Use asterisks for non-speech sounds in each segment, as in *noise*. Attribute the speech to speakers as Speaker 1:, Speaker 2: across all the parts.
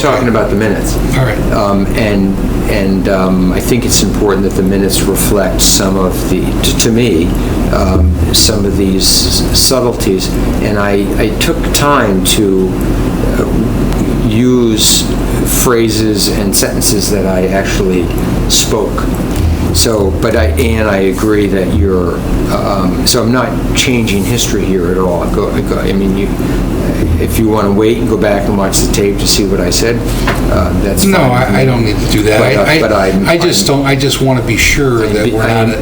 Speaker 1: talking about the minutes.
Speaker 2: All right.
Speaker 1: Um, And, and um, I think it's important that the minutes reflect some of the, to- to me, um, some of these subtleties. And I, I took time to uh, use phrases and sentences that I actually spoke. So, but I, and I agree that you're, um, so I'm not changing history here at all. I go- I go- I mean, you, if you want to wait and go back and watch the tape to see what I said, uh, that's fine.
Speaker 2: No, I, I don't need to do that.
Speaker 1: But, uh,
Speaker 2: I-
Speaker 1: but I'm-
Speaker 2: I, I just don't, I just want to be sure that we're
Speaker 1: I'm-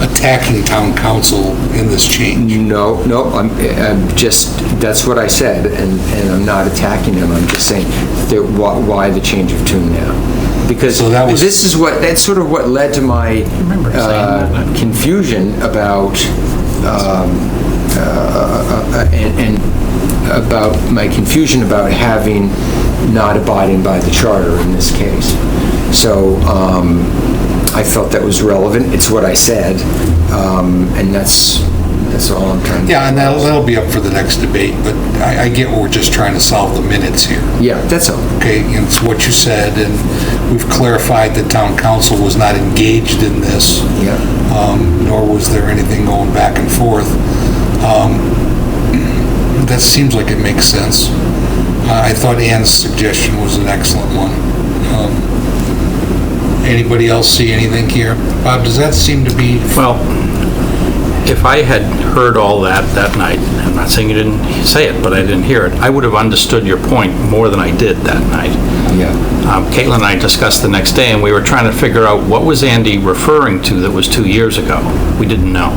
Speaker 2: not attacking town council in this change.
Speaker 1: No, no, I'm, I'm just, that's what I said, and, and I'm not attacking them, I'm just saying that why, why the change of tune now? Because
Speaker 2: So that was-
Speaker 1: this is what, that's sort of what led to my
Speaker 3: remember saying
Speaker 1: uh,
Speaker 3: that.
Speaker 1: confusion about, um, uh, and, and about my confusion about having not abiding by the charter in this case. So, um, I felt that was relevant, it's what I said, um, and that's, that's all I'm trying to.
Speaker 2: Yeah, and that'll, that'll be up for the next debate, but I, I get we're just trying to solve the minutes here,
Speaker 1: Yeah, that's all.
Speaker 2: okay? And it's what you said, and we've clarified that town council was not engaged in this.
Speaker 1: Yeah.
Speaker 2: um, nor was there anything going back and forth. Um, That seems like it makes sense. Uh, I I thought Ann's suggestion was an excellent one. Um, Anybody else see anything here? Bob, does that seem to be,
Speaker 3: Well, if I had heard all that that night, I'm not saying you didn't say it, but I didn't hear it, I would have understood your point more than I did that night.
Speaker 1: Yeah.
Speaker 3: Um, Caitlin and I discussed the next day, and we were trying to figure out what was Andy referring to that was two years ago? We didn't know.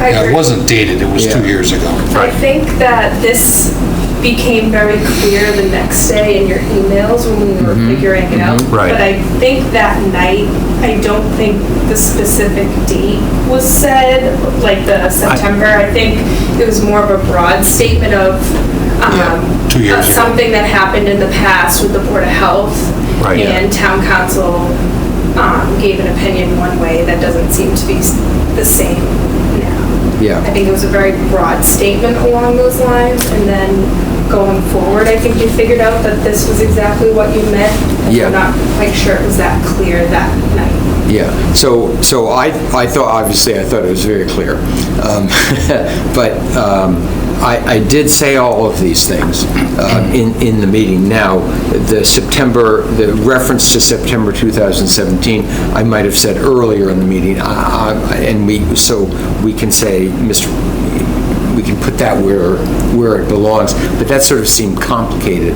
Speaker 4: I
Speaker 2: yeah, it
Speaker 4: agree.
Speaker 2: wasn't dated, it was two
Speaker 1: Yeah.
Speaker 2: years ago.
Speaker 4: I think that this became very clear the next day in your emails when we were
Speaker 2: Mm-hmm.
Speaker 4: figuring it out.
Speaker 3: Right.
Speaker 4: But I think that night, I don't think the specific date was said, like the September. I think it was more of a broad statement of, um,
Speaker 2: two years
Speaker 4: of
Speaker 2: ago.
Speaker 4: Something that happened in the past with the Board of Health.
Speaker 3: Right. Yeah.
Speaker 4: And town council, um, gave an opinion one way that doesn't seem to be s- the same now. I
Speaker 1: Yeah,
Speaker 4: think it was a very broad statement along those lines, and then going forward, I think you figured out that this was exactly what you meant. and
Speaker 1: Yeah.
Speaker 4: I'm not quite sure it was that clear that night.
Speaker 1: yeah. So, so I, I thought, obviously, I thought it was very clear. Um, *laughs* But um, I, I did say all of these things um, in, in the meeting. Now, the September, the reference to September 2017, I might have said earlier in the meeting, I- I- and we, so we can say, Mr., we can put that where, where it belongs, but that sort of seemed complicated.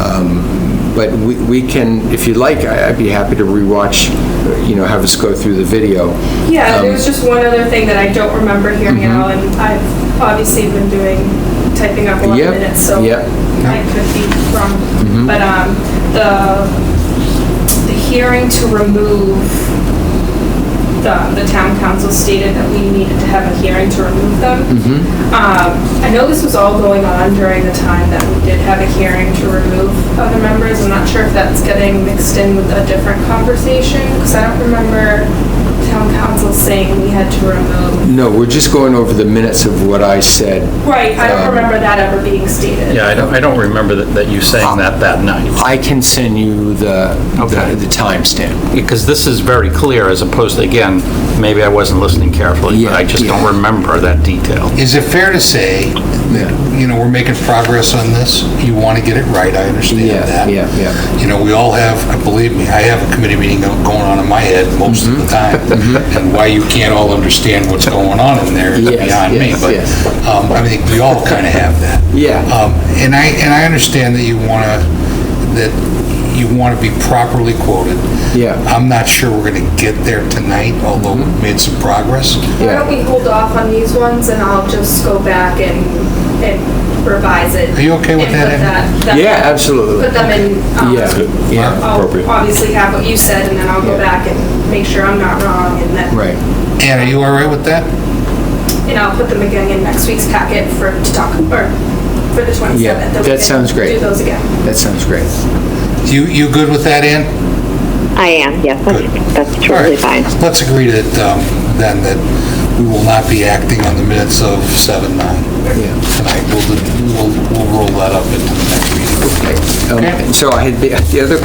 Speaker 1: Um, But we we can, if you like, I- I'd be happy to rewatch, you know, have us go through the video.
Speaker 4: Yeah,
Speaker 1: Um,
Speaker 4: there was just one other thing that I don't remember hearing
Speaker 1: mm-hmm.
Speaker 4: out, and I've obviously been doing, typing up a lot
Speaker 1: Yep,
Speaker 4: of minutes, so
Speaker 1: yep. Mm-hmm.
Speaker 4: I could be wrong. But um, the, the hearing to remove the, um, the town council stated that we needed to have a hearing to remove them.
Speaker 2: Mm-hmm.
Speaker 4: Um, I know this was all going on during the time that we did have a hearing to remove other members. I'm not sure if that's getting mixed in with a different conversation, because I don't remember town council saying we had to remove.
Speaker 1: No, we're just going over the minutes of what I said.
Speaker 4: Right, I
Speaker 1: Um,
Speaker 4: don't remember that ever being stated.
Speaker 3: Yeah, I don't, I don't remember that, that you saying that that night.
Speaker 1: I can send you the,
Speaker 3: Okay.
Speaker 1: the the timestamp.
Speaker 3: Because this is very clear, as opposed, to again, maybe I wasn't listening carefully, but I
Speaker 1: Yeah,
Speaker 3: just
Speaker 1: yeah.
Speaker 3: don't remember that detail.
Speaker 2: Is it fair to say that, you know, we're making progress on this? You want to get it right, I understand
Speaker 1: Yeah,
Speaker 2: that.
Speaker 1: yeah, yeah.
Speaker 2: You know, we all have, uh, believe me, I have a committee meeting go- going on in my head most
Speaker 1: Mm-hmm.
Speaker 2: of the
Speaker 1: *laughs*
Speaker 2: time. And why you can't all understand what's going on in there is
Speaker 1: Yes,
Speaker 2: beyond me.
Speaker 1: yes,
Speaker 2: But
Speaker 1: yes.
Speaker 2: um, I think we all kind of have that.
Speaker 1: Yeah.
Speaker 2: Um, And I, and I understand that you want to, that you want to be properly quoted.
Speaker 1: Yeah. Mm-hmm.
Speaker 2: I'm not sure we're going to get there tonight, although we've made some progress.
Speaker 4: Why don't we hold off on these ones, and I'll just go back and, and revise it.
Speaker 2: Are you okay with
Speaker 4: and
Speaker 2: that,
Speaker 4: put
Speaker 2: Amy?
Speaker 4: that-
Speaker 1: Yeah, absolutely.
Speaker 4: Put them in. um,
Speaker 1: Yeah, yeah.
Speaker 4: I'll obviously have what you said, and then I'll go
Speaker 1: Yeah.
Speaker 4: back and make sure I'm not wrong, and then,
Speaker 1: Right.
Speaker 2: Ann, are you all right with that?
Speaker 4: and I'll put them again in next week's packet for, to talk, or for the 27th.
Speaker 1: Yeah,
Speaker 4: we
Speaker 1: that
Speaker 4: can
Speaker 1: sounds great.
Speaker 4: Do those again.
Speaker 1: That sounds great.
Speaker 2: You, you good with that, Ann?
Speaker 5: I am, yes, that's, that's
Speaker 2: All
Speaker 5: totally
Speaker 2: right.
Speaker 5: fine.
Speaker 2: Let's agree that, um, then, that we will not be acting on the minutes of 7-9
Speaker 1: Yeah.
Speaker 2: tonight. We'll, we'll we'll roll that up into the next
Speaker 1: Um,
Speaker 2: meeting. Okay.
Speaker 1: So I had, the the other